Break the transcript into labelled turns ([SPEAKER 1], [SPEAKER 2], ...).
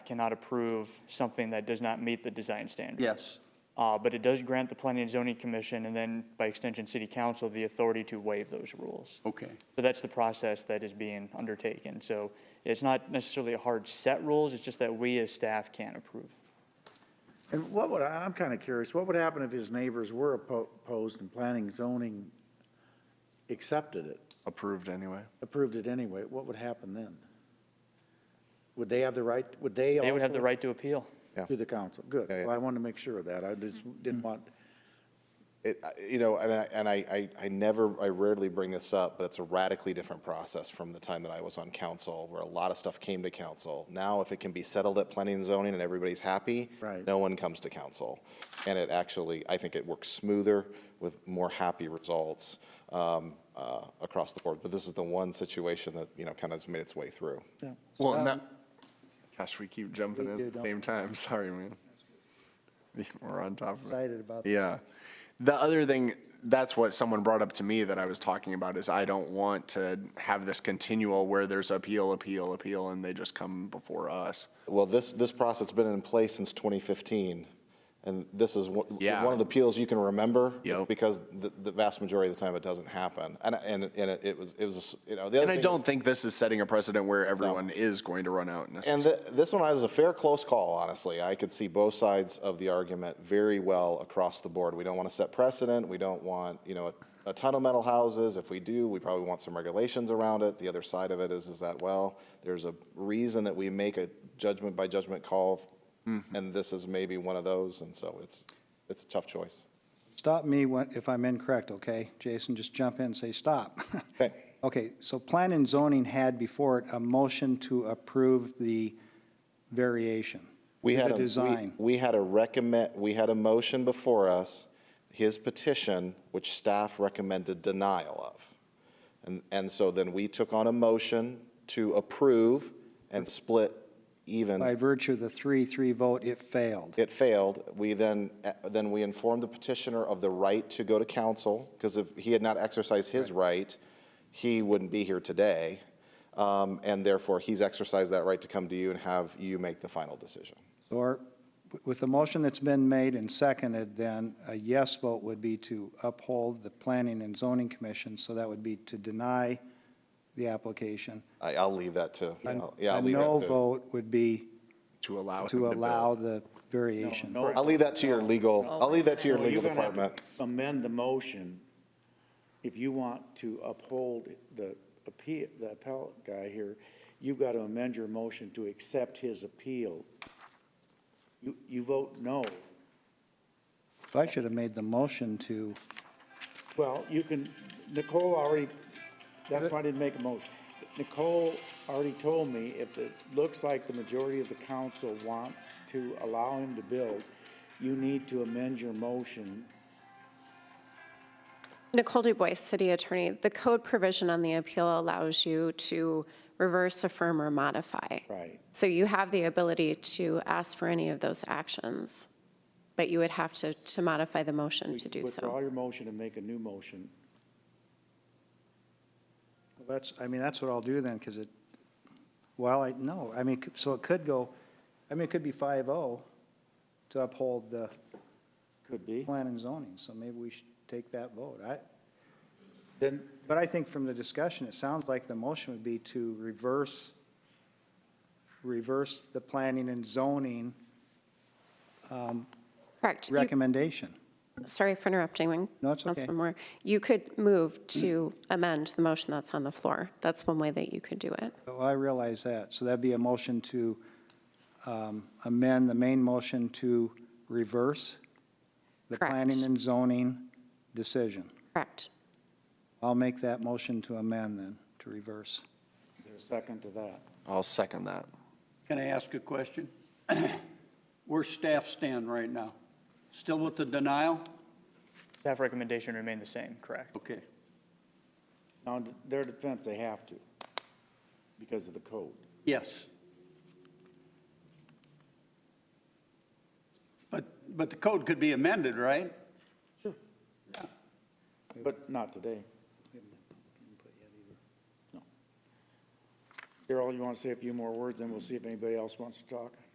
[SPEAKER 1] cannot approve something that does not meet the design standard.
[SPEAKER 2] Yes.
[SPEAKER 1] Uh, But it does grant the Planning and Zoning Commission, and then by extension, City Council, the authority to waive those rules.
[SPEAKER 2] Okay.
[SPEAKER 1] So that's the process that is being undertaken. So it's not necessarily a hard set rules, it's just that we as staff can't approve.
[SPEAKER 3] And what would, I- I'm kind of curious, what would happen if his neighbors were oppo- opposed and planning and zoning accepted it,
[SPEAKER 4] approved anyway.
[SPEAKER 3] approved it anyway? What would happen then? Would they have the right, would they?
[SPEAKER 1] They would have the
[SPEAKER 3] also-
[SPEAKER 1] right to appeal.
[SPEAKER 4] Yeah.
[SPEAKER 3] To the council, good.
[SPEAKER 4] Yeah, yeah.
[SPEAKER 3] Well, I wanted to make sure of that. I just didn't want,
[SPEAKER 4] It, I- you know, and I, and I, I, I never, I rarely bring this up, but it's a radically different process from the time that I was on council, where a lot of stuff came to council. Now, if it can be settled at planning and zoning and everybody's happy,
[SPEAKER 3] Right.
[SPEAKER 4] no one comes to council. And it actually, I think it works smoother with more happy results um, uh, across the board. But this is the one situation that, you know, kind of has made its way through.
[SPEAKER 3] yeah.
[SPEAKER 5] Well, and
[SPEAKER 3] Um,
[SPEAKER 5] that, gosh, we keep jumping in
[SPEAKER 3] do,
[SPEAKER 5] at the
[SPEAKER 3] don't
[SPEAKER 5] same time. Sorry, man. We're on top of it.
[SPEAKER 3] Excited about that.
[SPEAKER 5] Yeah. The other thing, that's what someone brought up to me that I was talking about is I don't want to have this continual where there's appeal, appeal, appeal, and they just come before us.
[SPEAKER 4] Well, this, this process has been in place since 2015, and this is one
[SPEAKER 5] Yeah.
[SPEAKER 4] one of the appeals you can remember.
[SPEAKER 5] Yep.
[SPEAKER 4] Because the, the vast majority of the time, it doesn't happen. And, and, and it was, it was, a s- you know, the other
[SPEAKER 5] And I
[SPEAKER 4] thing
[SPEAKER 5] don't
[SPEAKER 4] is-
[SPEAKER 5] think this is setting a precedent where everyone is going to run out
[SPEAKER 4] And
[SPEAKER 5] necessarily.
[SPEAKER 4] th- this one is a fair close call, honestly. I could see both sides of the argument very well across the board. We don't want to set precedent. We don't want, you know, a, a ton of metal houses. If we do, we probably want some regulations around it. The other side of it is, is that, well, there's a reason that we make a judgment by judgment call, and this is maybe one of those, and so it's, it's a tough choice.
[SPEAKER 6] Stop me when, if I'm incorrect, okay? Jason, just jump in and say stop.
[SPEAKER 4] Okay.
[SPEAKER 6] Okay, so plan and zoning had before it a motion to approve the variation.
[SPEAKER 4] We had
[SPEAKER 6] The
[SPEAKER 4] a, we,
[SPEAKER 6] design.
[SPEAKER 4] we had a recommend, we had a motion before us, his petition, which staff recommended denial of. And, and so then we took on a motion to approve and split
[SPEAKER 6] By
[SPEAKER 4] even.
[SPEAKER 6] virtue of the three-three vote, it failed.
[SPEAKER 4] It failed. We then, uh, then we informed the petitioner of the right to go to council, because if he had not exercised his right, he wouldn't be here today. Um, and therefore, he's exercised that right to come to you and have you make the final decision.
[SPEAKER 6] Or with the motion that's been made and seconded, then a yes vote would be to uphold the Planning and Zoning Commission, so that would be to deny the application.
[SPEAKER 4] I, I'll leave that to, I'll- yeah, I'll
[SPEAKER 6] A
[SPEAKER 4] leave
[SPEAKER 6] no
[SPEAKER 4] that to.
[SPEAKER 6] vote would be
[SPEAKER 5] To allow. him
[SPEAKER 6] to
[SPEAKER 5] build.
[SPEAKER 6] allow the variation.
[SPEAKER 3] No,
[SPEAKER 4] I'll leave that to your legal, I'll leave that to your
[SPEAKER 3] Well,
[SPEAKER 4] legal
[SPEAKER 3] you're gonna have to
[SPEAKER 4] department.
[SPEAKER 3] Amend the motion if you want to uphold the appeal, the appellate guy here, you've got to amend your motion to accept his appeal. You, you vote no.
[SPEAKER 6] So I should have made the motion to,
[SPEAKER 3] Well, you can, Nicole already, that's why I didn't make a motion. Nicole already told me if it looks like the majority of the council wants to allow him to build, you need to amend your motion
[SPEAKER 7] Nicole DuBois, City Attorney. The code provision on the appeal allows you to reverse, affirm, or modify.
[SPEAKER 3] Right.
[SPEAKER 7] So you have the ability to ask for any of those actions, but you would have to, to modify the motion to do
[SPEAKER 3] Withdraw
[SPEAKER 7] so.
[SPEAKER 3] your motion and make a new motion.
[SPEAKER 6] well, that's, I mean, that's what I'll do then, because it, well, I, no, I mean, so it could go, I mean, it could be 5-0 to uphold the
[SPEAKER 3] Could be.
[SPEAKER 6] plan and zoning, so maybe we should take that vote. I,
[SPEAKER 3] Then,
[SPEAKER 6] but I think from the discussion, it sounds like the motion would be to reverse, reverse the planning and zoning
[SPEAKER 7] Correct. You-
[SPEAKER 6] recommendation.
[SPEAKER 7] Sorry for interrupting.
[SPEAKER 6] No, it's okay. Mm.
[SPEAKER 7] Councilman Moore. You could move to amend the motion that's on the floor. That's one way that you could do it.
[SPEAKER 6] Oh, I realize that. So that'd be a motion to um, amend the main motion to reverse the
[SPEAKER 7] Correct.
[SPEAKER 6] planning and zoning decision.
[SPEAKER 7] Correct.
[SPEAKER 6] I'll make that motion to amend then, to reverse.
[SPEAKER 3] there's a second to that.
[SPEAKER 5] I'll second that.
[SPEAKER 8] Can I ask a question? Where staff stand right now? Still with the denial?
[SPEAKER 1] Staff recommendation remained the same, correct?
[SPEAKER 8] Okay.
[SPEAKER 3] Now, in their defense, they have to, because of the code.
[SPEAKER 8] Yes. But, but the code could be amended, right?
[SPEAKER 3] But not today. No. Darrell, you want to say a few more words, then we'll see if anybody else wants to talk?